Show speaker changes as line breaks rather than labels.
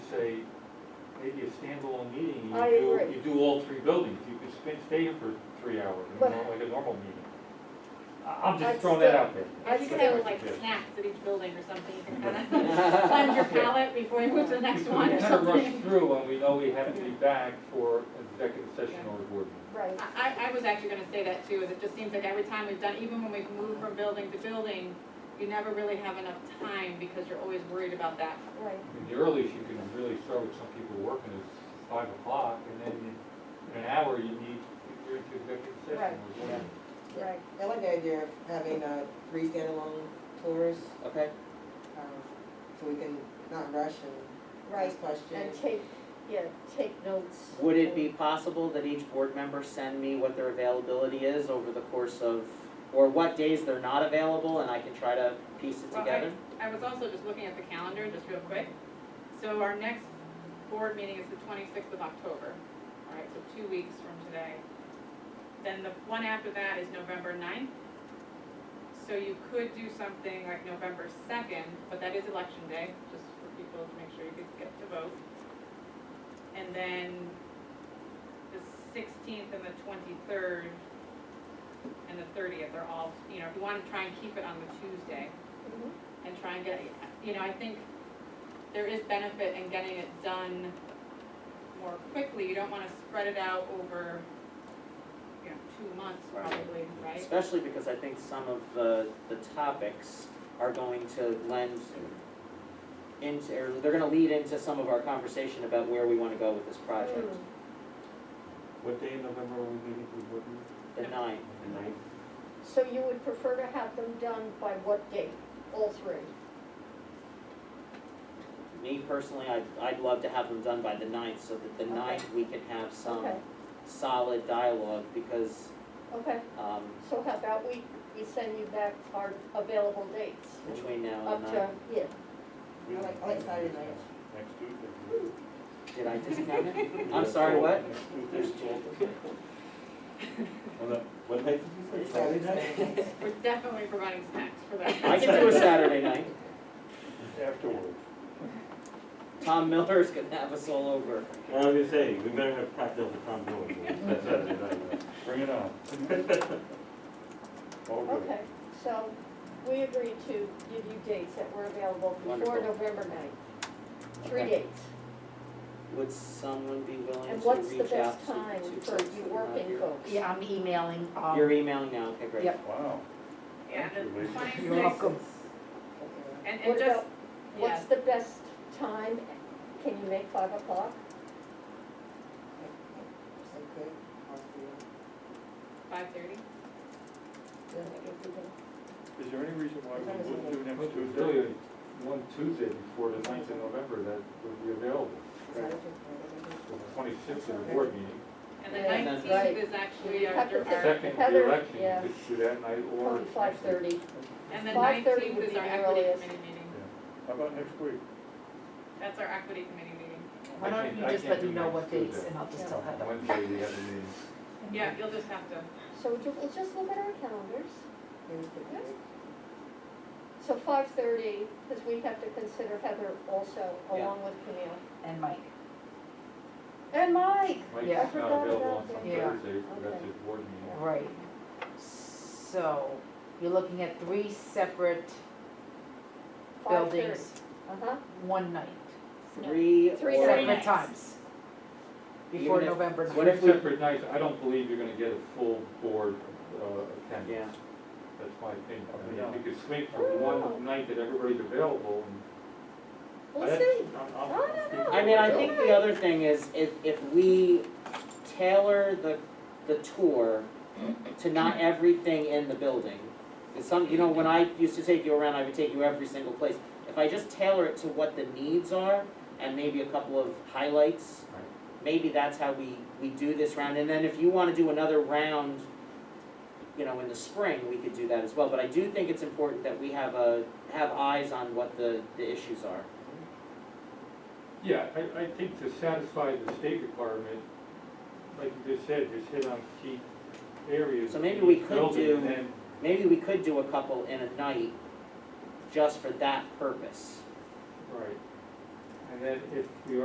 maybe a standalone meeting. You
I
do-
agree.
You do all three buildings, you could spend, stay here for three hours, you
But-
know, like a normal meeting. I, I'm just
I'd
throwing that
still-
out there.
I'd
You could
still-
have like snacks at each building or something, you can kind of cleanse your palate before you move to the next one or
Kind of rush
something.
through when we know we have to be back for executive session or a board meeting.
Right,
I, I- I was actually gonna say that too, is it just seems like every time we've done, even when we've moved from building to building, you never really have enough time because you're always worried about that.
right.
I mean, The earliest you can really start with some people working is five o'clock, and then in an hour, you need, you're into executive session
Right.
or board meeting.
Right.
I like the idea of having, uh, three standalone tours,
Okay,
um, so we can not rush and
Right,
ask
and
questions.
take, yeah, take notes.
would it be possible that each board member send me what their availability is over the course of, or what days they're not available, and I can try to piece it
Well, I-
together?
I was also just looking at the calendar, just real quick. So our next board meeting is the twenty-sixth of October, all right, so two weeks from today. Then the one after that is November 9th. So you could do something like November second, but that is election day, just for people to make sure you could get to vote. And then the sixteenth and the twenty-third and the thirtieth are all, you know, if you want to try and keep it on the Tuesday
Mhm.
and try and get, you know, I think there is benefit in getting it done more quickly. You don't wanna spread it out over, you know, two months
Right.
probably, right?
Especially because I think some of the, the topics are going to lend into, or they're gonna lead into some of our conversation about where we wanna go with this project.
Mm.
What day in November are we meeting for the board meeting?
Mm.
The nine,
The ninth?
So you would prefer to have them done by what date? All three?
me personally, I'd, I'd love to have them done by the ninth, so that the
Okay.
ninth, we can have some
Okay,
solid dialogue, because,
okay.
um,
So how about we, we send you back our available dates?
between now
Up
and
to,
nine,
yeah,
I like, I like Saturday night.
Next Tuesday.
did I discount it? I'm sorry, what?
Next Tuesday. Well, that- What night did you say? Saturday night?
We're definitely providing snacks for that.
I can do a Saturday night,
Afterwards.
Tom Miller's gonna have us all over.
I was gonna say, we better have cocktails with Tom Dolan. That's Saturday night. Bring it on. All good.
okay. So we agreed to give you dates that were available before
Wonderful.
November ninth. Three
Okay.
dates.
Would someone be willing
And
to
what's the
reach out
best
to,
time
to
for
folks
you
that are not
working
here?
folks?
Yeah, I'm emailing, um,
You're e- emailing now, okay, great.
Yep.
Wow.
Yeah, and the twenty-sixth.
You're welcome.
And, and
What
just,
about,
yeah,
what's the best time? Can you make five o'clock?
So good, I'll
five-thirty?
do it.
Is there any reason why we wouldn't do
Well,
next
there's
Tuesday?
really One Tuesday before the ninth of November that would be available,
Saturday,
for the twenty-sixth of the board meeting.
And the
Yeah,
that's
nineteenth
right.
is actually our,
Have to
our-
think.
Second,
Heather,
the election, you
yeah.
could do that night or.
Probably five thirty.
and the
5:30
nineteenth
would
is
be
our
the
equity
earliest.
committee meeting.
How about next week?
That's our equity committee meeting.
why
I
don't
can't-
you
I
just
can't
let
do
me know
next
what dates
Tuesday.
and I'll just tell Heather.
Wednesday, we have a meeting.
Yeah, you'll just have to,
So ju- we'll just look at our calendars.
Here's the date.
So five thirty, because we have to consider Heather also,
Yeah.
along with Camille.
And Mike.
And Mike. I
Mike's
forgot
not available on
about
some
that. Yeah.
Thursdays, so that's
Okay.
his board meeting.
Right. So, you're looking at three separate buildings,
Uh-huh.
one night,
Three or.
Three
separate
nights.
times, before
Even if-
November
what
ninth.
Three
if we-
separate nights, I don't believe you're gonna get a full board, uh,
Yeah,
attendance. That's my opinion. I mean,
Yeah.
you could swing from
Oh.
one night that everybody's available and.
We'll
That's-
see.
I'm-
I
I'm-
don't know.
I mean, I think the other thing is, if, if we tailor the, the tour to not everything in the building, it's some, you know, when I used to take you around, I would take you every single place. If I just tailor it to what the needs are, and maybe a couple of highlights,
Right.
maybe that's how we, we do this round, and then if you wanna do another round, you know, in the spring, we could do that as well, but I do think it's important that we have a, have eyes on what the, the issues are.
Yeah, I, I think to satisfy the state requirement, like you just said, just hit on key areas.
So maybe we
of each
could
building,
do-
and then-
Maybe we could do a couple in a night just for that purpose.
Right. And then if we